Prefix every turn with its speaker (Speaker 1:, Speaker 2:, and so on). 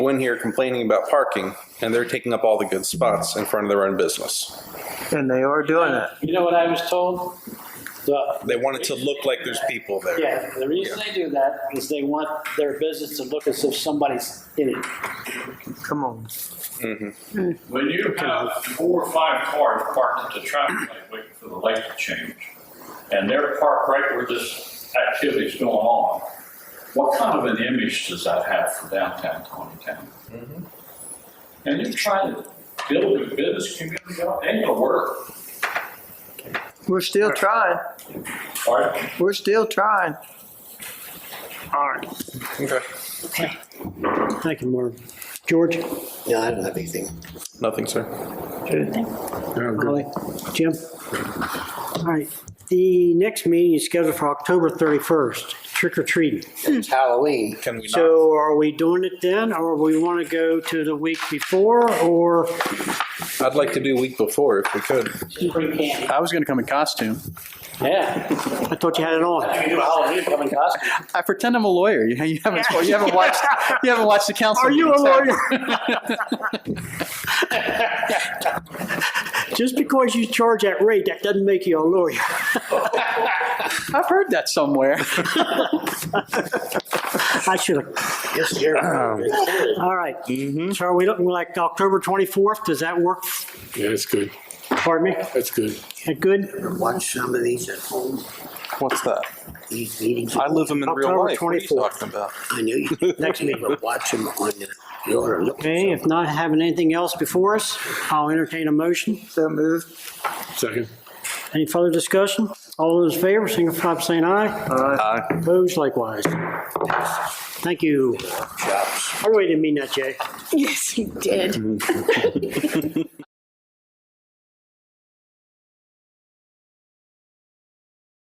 Speaker 1: go in here complaining about parking, and they're taking up all the good spots in front of their own business.
Speaker 2: And they are doing it.
Speaker 3: You know what I was told? The,
Speaker 1: They want it to look like there's people there.
Speaker 3: yeah, the reason they do that is they want their business to look as if somebody's in it.
Speaker 2: Come on.
Speaker 4: When you have four or five cars parked at the traffic light waiting for the light to change, and they're parked right where this activity's going on, what kind of an image does that have for downtown Tawnytown? And you're trying to build a business community, out, ain't gonna work,
Speaker 2: We're still trying.
Speaker 4: all right?
Speaker 2: We're still trying.
Speaker 5: All right.
Speaker 1: Okay.
Speaker 5: Thank you, Marvin. George?
Speaker 6: No, I don't have anything.
Speaker 1: Nothing, sir.
Speaker 5: Holly? Jim? All right. The next meeting is scheduled for October 31st, trick or treating.
Speaker 6: It's Halloween.
Speaker 1: Can we not?
Speaker 5: So are we doing it then, or we want to go to the week before, or?
Speaker 1: I'd like to do week before if we could.
Speaker 3: Free candy.
Speaker 7: I was going to come in costume.
Speaker 3: Yeah.
Speaker 5: I thought you had it on.
Speaker 3: You can do a Halloween coming costume.
Speaker 7: I pretend I'm a lawyer. You, you haven't you haven't watched you haven't watched the council.
Speaker 5: Are you a
Speaker 7: meetings, have you?
Speaker 5: lawyer? Just because you charge that rate, that doesn't make you a lawyer.
Speaker 7: I've heard that somewhere.
Speaker 5: I should have,
Speaker 6: Yes, sir.
Speaker 1: Um,
Speaker 5: all right.
Speaker 1: Mm-hmm.
Speaker 5: So are we looking like October 24th? Does that work?
Speaker 8: Yeah, that's good.
Speaker 5: Pardon me?
Speaker 8: That's good.
Speaker 5: That Good?
Speaker 6: Watch some of these at home,
Speaker 1: What's that?
Speaker 6: these meetings.
Speaker 1: I live them in
Speaker 5: October
Speaker 1: real life. What are you
Speaker 5: 24th.
Speaker 1: talking about?
Speaker 6: I knew you, next meeting, but watch them on your, your, look.
Speaker 5: Okay, if not having anything else before us, I'll entertain a motion.
Speaker 2: So move.
Speaker 8: Second.
Speaker 5: Any further discussion? All those in favor, signify by saying aye.
Speaker 1: Aye.
Speaker 5: Opposed likewise. Thank you. I really didn't mean that, Jay.
Speaker 9: Yes, he did.